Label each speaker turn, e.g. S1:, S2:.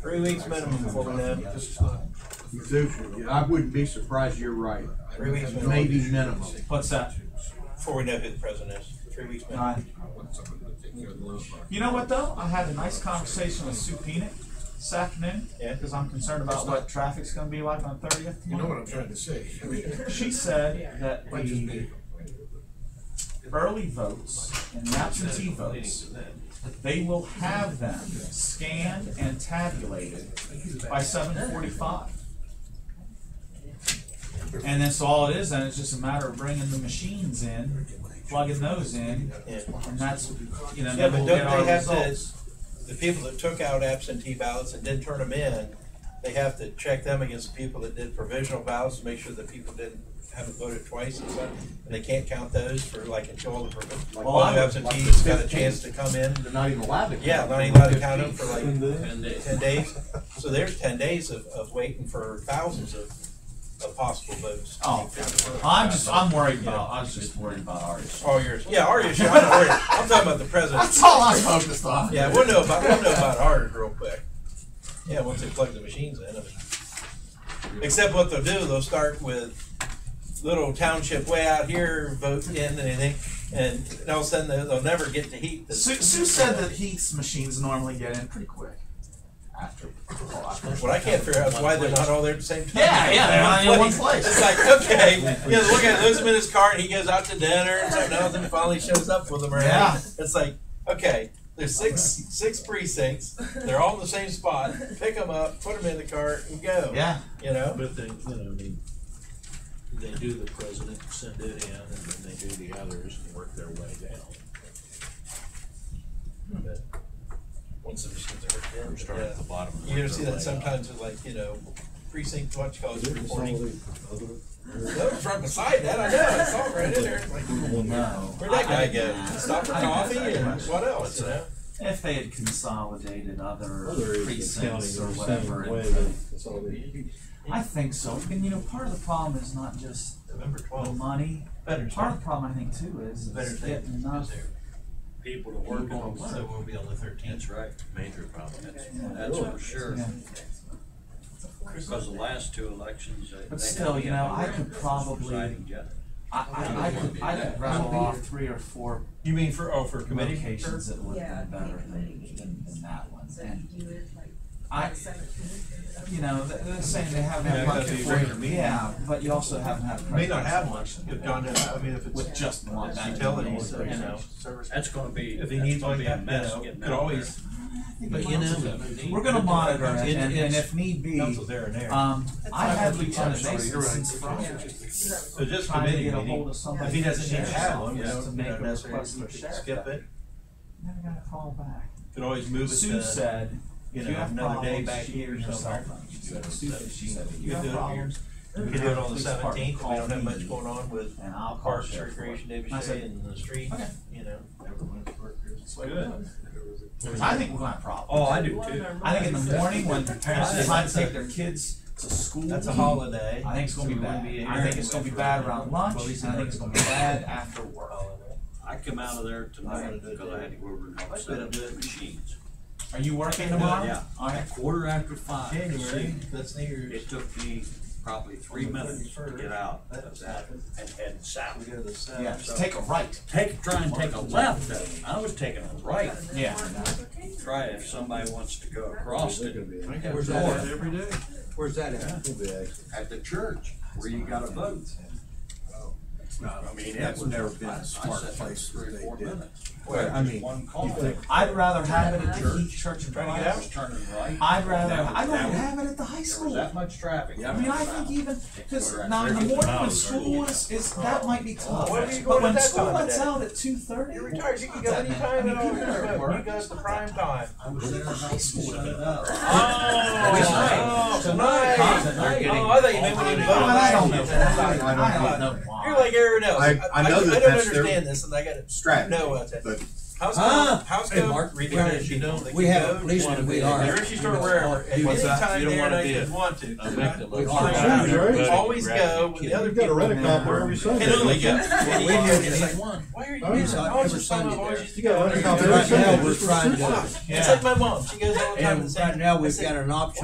S1: Three weeks minimum before we know.
S2: You do, yeah, I wouldn't be surprised, you're right.
S1: Three weeks minimum.
S2: Maybe minimum.
S3: What's that?
S1: Before we know who the president is. Three weeks minimum.
S3: Uh, You know what though? I had a nice conversation with Sue Peanut this afternoon.
S1: Yeah.
S3: Because I'm concerned about what traffic's gonna be like on thirtieth.
S4: You know what I'm trying to say. I mean,
S3: She said that
S4: might just
S3: the
S4: be-
S3: early votes and absentee votes, they will have them scanned and tabulated by seven forty-five. And that's all it is, and it's just a matter of bringing the machines in, plugging those in,
S1: Yeah.
S3: and that's, you know,
S1: Yeah,
S3: then
S1: but
S3: we'll get
S1: don't
S3: our
S1: they have to,
S3: results.
S1: the people that took out absentee ballots and didn't turn them in, they have to check them against the people that did provisional ballots to make sure that people didn't, haven't voted twice and stuff. And they can't count those for like until all the provi-
S2: Like
S1: all
S3: I
S1: the
S3: would-
S2: like
S1: absentees
S2: the
S1: got a
S2: 15.
S1: chance to come in.
S2: They're not even allowed to.
S1: Yeah,
S2: count.
S1: not even allowed to count them for like
S5: Ten days.
S1: ten days. So there's ten days of, of waiting for thousands of, of possible votes.
S3: Oh, I'm just, I'm worried about, I was just worried about our issue.
S1: All yours. Yeah, our issue. I'm not worried. I'm talking about the president.
S3: That's all I focused on.
S1: Yeah, we'll know about, we'll know about ours real quick. Yeah, once they plug the machines in. I mean. Except what they'll do, they'll start with little township way out here, vote in and anything, and all of a sudden they'll, they'll never get to heat the.
S3: Sue, Sue said that Heath's machines normally get in pretty quick after.
S1: What I can't figure out is why they're not all there at the same time.
S3: Yeah, yeah, they're not in one place.
S1: It's like, okay, he has to look at, lose him in his car, and he goes out to dinner, and something else, and finally shows up with them. Or
S3: Yeah.
S1: It's like, okay, there's six six precincts, they're all in the same spot, pick them up, put them in the car, and go.
S3: Yeah,
S1: You know?
S5: But they, you know, they, they do the president, send it in, and then they do the others and work their way down.
S3: Hmm.
S1: But Once the machines are
S5: Or
S1: working,
S5: start at the bottom. and
S1: You ever
S5: work
S1: see
S5: their
S1: that
S5: way
S1: sometimes with like, you know, precinct, what you call it, reporting? That was right beside that, I know, I saw it right in there. It's like,
S3: no.
S1: Where'd that guy go? Stop for
S3: I- I-
S1: coffee
S3: I-
S1: and what else, you know?
S3: If they had consolidated other
S5: Other areas of
S3: precincts or
S5: county are the same
S3: whatever,
S5: way,
S3: it-
S5: That's all they do.
S3: I think so. And you know, part of the problem is not just
S1: November
S3: the
S1: twelfth.
S3: money.
S1: Veterans
S3: Part of the problem, I think, too, is is getting enough.
S1: People to
S3: work on it.
S1: So we'll be on the thirteenth.
S5: That's right, major problem, that's,
S3: Yeah.
S5: that's for sure.
S3: Yeah.
S5: Because the last two elections, they.
S3: But
S5: they
S3: still,
S5: had
S3: you know,
S5: the
S3: I could probably-
S5: presiding judge.
S3: I, I, I could, I could rattle off three or four
S1: You mean for, oh, for committee?
S3: locations that would
S6: Yeah,
S3: have been better than,
S6: committee.
S3: than, than that one.
S6: So
S3: And
S6: you do it like
S3: I,
S6: seventeenth.
S3: you know, th- they're saying they haven't
S1: Yeah,
S3: had much
S1: that'd be a
S3: for-
S1: regular meeting.
S3: Yeah, but you also haven't had.
S1: May not have one,
S3: much
S1: if Don, I mean, if
S3: With
S1: it's
S3: just one.
S1: it's utilities, you know.
S5: That's gonna be,
S1: If
S5: that's
S1: he needs
S5: gonna
S1: one,
S5: be
S1: you
S5: a mess
S1: know,
S5: getting
S1: could
S5: out
S1: always,
S5: But you know.
S3: We're gonna monitor it, and, and if need be,
S1: council's there and there.
S3: um, I had Lieutenant
S2: sorry,
S3: Mason
S2: you're right.
S3: since Friday,
S1: So just
S3: trying to
S1: committee
S3: get a hold
S1: meeting,
S3: of somebody.
S1: if he doesn't
S3: from
S1: need to have one, you
S3: sheriff's
S1: know,
S3: office to
S1: you know,
S3: make a
S1: that's-
S3: request
S1: you
S3: for
S1: could
S3: sheriff.
S1: skip it,
S3: Never got a call back.
S1: could always move it
S3: Sue
S1: to,
S3: said,
S1: you
S3: if you
S1: know,
S3: have
S1: another day
S3: problems,
S1: back
S3: she
S1: here or
S3: and her cell
S1: somewhere.
S3: phone. She
S1: You
S3: said,
S1: know,
S3: Sue, said, she said, if
S1: You
S3: you
S1: could
S3: have
S1: do it here.
S3: problems.
S1: We could do it on the
S3: Police department,
S1: seventeenth, we
S3: call
S1: don't have
S3: me,
S1: much going on with
S3: And I'll call
S1: parks,
S3: sheriff.
S1: recreation,
S3: I
S1: Davis
S3: said,
S1: and the streets,
S3: okay.
S1: you know.
S3: Good. I think we're gonna have problems.
S1: Oh, I do too.
S3: I think in the morning when parents decide to take their kids to school.
S1: That's a holiday.
S3: I think it's gonna be
S1: So we
S3: bad.
S1: wouldn't be
S3: I think it's gonna be bad around lunch,
S1: Well,
S3: and I think it's gonna be bad after work.
S5: I come out of there tonight because I had to go over and help set up the machines.
S3: Are you working tomorrow?
S5: Yeah.
S3: Alright.
S5: Quarter after five.
S1: January, that's New Year's.
S5: It took me probably three minutes to get out of that and head
S1: We
S5: south.
S1: go to the south.
S3: Yeah, just take a right.
S5: Take, try and take a left though. I was taking a right.
S3: Yeah.
S5: Try if somebody wants to go across it
S2: Where's that at? Every day. Where's that at?
S5: at the church where you gotta vote. I mean, it
S2: That's
S5: was.
S2: never been a smart
S5: I sat there
S2: place
S5: three or
S2: that they
S5: four
S2: did.
S5: minutes.
S2: Well, I mean,
S5: One call.
S2: you think-
S3: I'd rather have it at the Heath Church and
S1: Trying to get
S5: I
S3: Friars.
S5: was turning right.
S3: I'd rather,
S5: That was-
S3: I'd
S5: that
S3: rather
S5: was-
S3: have it at the high
S5: There was
S3: school.
S5: that much traffic.
S2: Yeah.
S3: I mean, I think even, cause now in the morning when school is, is, that might be tough,
S1: Where were you
S3: but
S1: going at
S3: when
S1: that
S3: school
S1: time of
S3: lets
S1: day?
S3: out at two thirty.
S1: You're retired, you can go anytime at all. You go at the prime time.
S5: I was
S3: Look at
S5: there.
S3: the high school.
S1: Oh, oh, tonight. Oh, I thought you meant when you
S3: But I don't know,
S1: voted.
S3: I don't know
S1: You're
S3: why.
S1: like everyone else.
S2: I- I know that
S1: I don't
S2: that's their-
S1: understand this and I gotta
S2: Strategy,
S1: know what's it.
S2: but
S1: How's
S2: Huh?
S1: come, how's
S2: Hey,
S1: come
S2: Mark,
S1: retailers you know they
S2: we
S1: can
S2: have a
S1: go
S2: policeman,
S1: to
S2: we
S1: the
S2: are.
S1: grocery store wherever at
S2: You
S1: any
S2: don't
S1: time there
S5: wanna
S1: and
S5: be
S1: they
S5: a-
S1: should want to.
S5: a victim
S2: We
S5: of
S2: are.
S1: Right.
S5: somebody
S1: Right.
S5: who
S1: Always
S5: grabbed you
S1: go
S5: and
S1: with
S5: killed
S1: the other
S5: you.
S7: You've got a rent-a-cop wherever you say.
S1: Can only go.
S2: Well, we
S1: And
S2: did
S1: you-
S2: it
S1: it's like,
S2: at one.
S1: why are you
S7: Oh,
S1: doing
S7: it's
S1: that?
S2: not
S1: I was
S2: every
S1: just talking
S2: Sunday
S1: about
S2: there.
S1: oranges.
S7: You got a rent-a-cop
S2: And
S7: every
S2: right now,
S7: Sunday.
S2: we're trying to do it.
S1: It's like my mom. She goes all the time. to
S2: And
S1: the same-
S2: right now,
S1: I
S2: we've
S1: said,
S2: got an option